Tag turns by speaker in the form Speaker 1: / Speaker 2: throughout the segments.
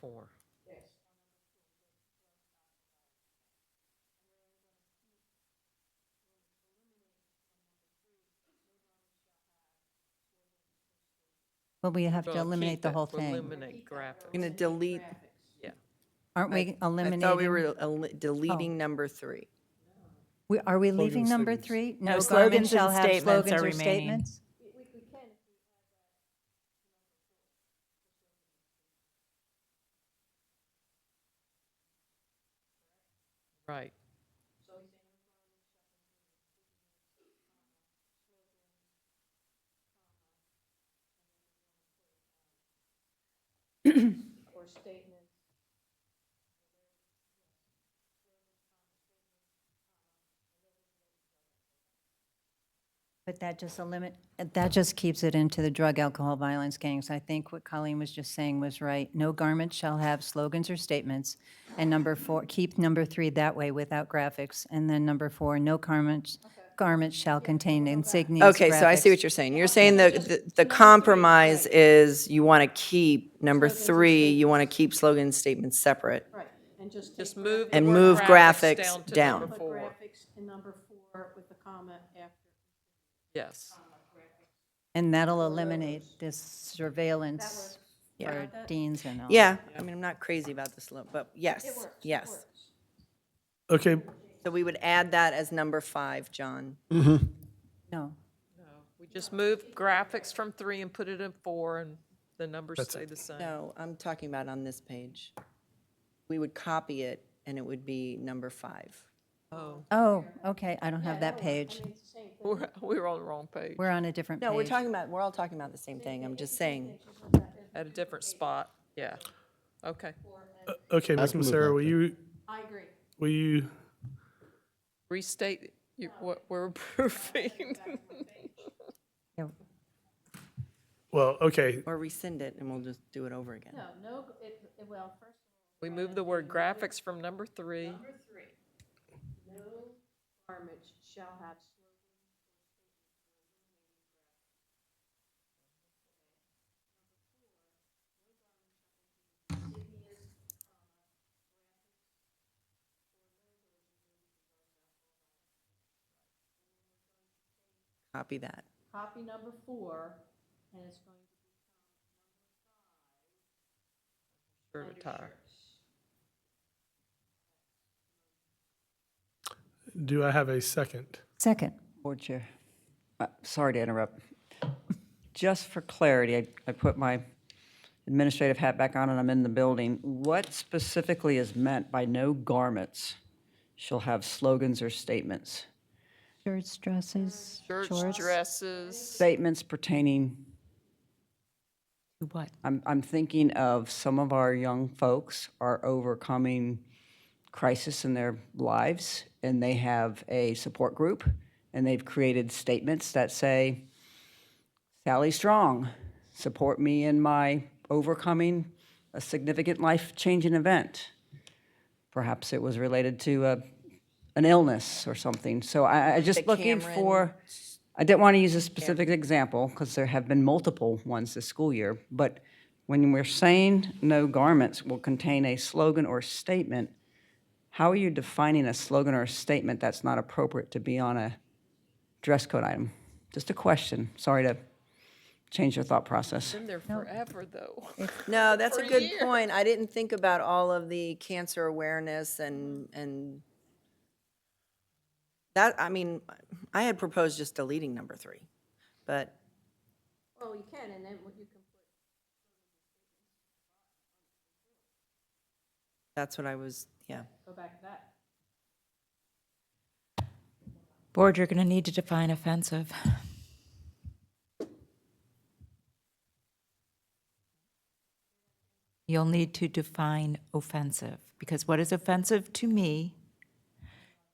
Speaker 1: four.
Speaker 2: But we have to
Speaker 1: Well,
Speaker 2: eliminate
Speaker 1: keep
Speaker 2: the
Speaker 1: it,
Speaker 2: whole thing.
Speaker 1: Eliminate graphics.
Speaker 3: Going to delete,
Speaker 2: Aren't we
Speaker 3: I thought we
Speaker 2: eliminating? Oh.
Speaker 3: were el- deleting number three.
Speaker 2: We- Are we leaving number three?
Speaker 4: No,
Speaker 2: slogans
Speaker 4: slogans and
Speaker 2: shall have
Speaker 4: statements
Speaker 2: slogans
Speaker 4: are
Speaker 2: or
Speaker 4: remaining.
Speaker 2: statements?
Speaker 1: Right.
Speaker 2: But that just eliminate, that just keeps it into the drug, alcohol, violence, gangs. I think what Colleen was just saying was right. No garment shall have slogans or statements. And number four, keep number three that way without graphics. And then number four, no garments, garments shall contain insignias,
Speaker 3: Okay, so I see
Speaker 2: graphics.
Speaker 3: what you're saying. You're saying the, the- the compromise is you want to keep number three, you want to keep slogan statements separate.
Speaker 5: Right, and just
Speaker 1: Just
Speaker 5: take
Speaker 1: move. the
Speaker 3: And
Speaker 1: word
Speaker 3: move graphics
Speaker 1: to
Speaker 3: down.
Speaker 1: number four.
Speaker 5: graphics in number four with the comma after.
Speaker 1: Yes.
Speaker 2: And that'll eliminate this surveillance for deans and all.
Speaker 3: Yeah, I mean, I'm not crazy about this, lo- but yes, yes.
Speaker 6: Okay,
Speaker 3: So we would add that as number five, John.
Speaker 2: No.
Speaker 1: We just move graphics from three and put it in four and the numbers stay the same.
Speaker 3: No, I'm talking about on this page. We would copy it and it would be number five.
Speaker 1: Oh,
Speaker 2: Oh, okay, I don't have that page.
Speaker 1: we're, we were on the wrong page,
Speaker 2: We're on a different page.
Speaker 3: No, we're talking about, we're all talking about the same thing. I'm just saying.
Speaker 1: at a different spot. Yeah. Okay.
Speaker 6: okay, Ms. Massaro, will you,
Speaker 5: I agree.
Speaker 6: will you,
Speaker 1: Restate you- what we're approving.
Speaker 2: Yeah.
Speaker 6: well, okay,
Speaker 3: Or rescind it and we'll just do it over again.
Speaker 5: No, no, it, it- well, first,
Speaker 1: We move the word graphics from number three.
Speaker 5: number three, no garment shall have slogan.
Speaker 3: Copy that.
Speaker 5: Copy number four, and it's going
Speaker 1: Sure to
Speaker 5: to
Speaker 1: tie.
Speaker 6: do I have a second?
Speaker 2: Second.
Speaker 7: Board Chair, uh, sorry to interrupt. Just for clarity, I- I put my administrative hat back on and I'm in the building. What specifically is meant by no garments shall have slogans or statements?
Speaker 2: Shirts, dresses,
Speaker 1: Church
Speaker 2: shorts.
Speaker 1: dresses.
Speaker 7: Statements pertaining,
Speaker 4: What?
Speaker 7: I'm I'm thinking of some of our young folks are overcoming crisis in their lives, and they have a support group, and they've created statements that say, Sally Strong, support me in my overcoming a significant life changing event. Perhaps it was related to a, an illness or something. So I, I just looking
Speaker 3: Cameron-
Speaker 7: for, I didn't want to use a specific example because there have been multiple ones this school year, but when we're saying no garments will contain a slogan or statement, how are you defining a slogan or a statement that's not appropriate to be on a dress code item? Just a question. Sorry to change your thought process.
Speaker 1: Been there forever, though.
Speaker 3: No, that's a
Speaker 1: a
Speaker 3: good
Speaker 1: year.
Speaker 3: point. I didn't think about all of the cancer awareness and, and that, I mean, I had proposed just deleting number three, but
Speaker 5: Well, you can, and then what you can
Speaker 3: that's what I was, yeah.
Speaker 5: go back to that.
Speaker 4: Board, you're going to need to define offensive. You'll need to define offensive, because what is offensive to me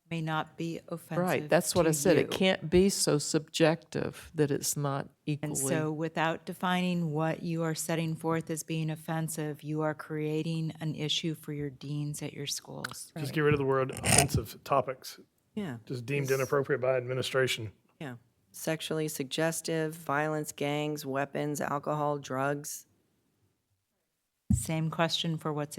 Speaker 4: may not be offensive
Speaker 1: Right, that's what
Speaker 4: to
Speaker 1: I said. It
Speaker 4: you.
Speaker 1: can't be so subjective that it's not
Speaker 4: And
Speaker 1: equally.
Speaker 4: so without defining what you are setting forth as being offensive, you are creating an issue for your deans at your schools.
Speaker 6: Just get rid of the word offensive topics,
Speaker 3: Yeah,
Speaker 6: just deemed inappropriate by administration.
Speaker 3: yeah. Sexually suggestive, violence, gangs, weapons, alcohol, drugs.
Speaker 4: Same question for what's in.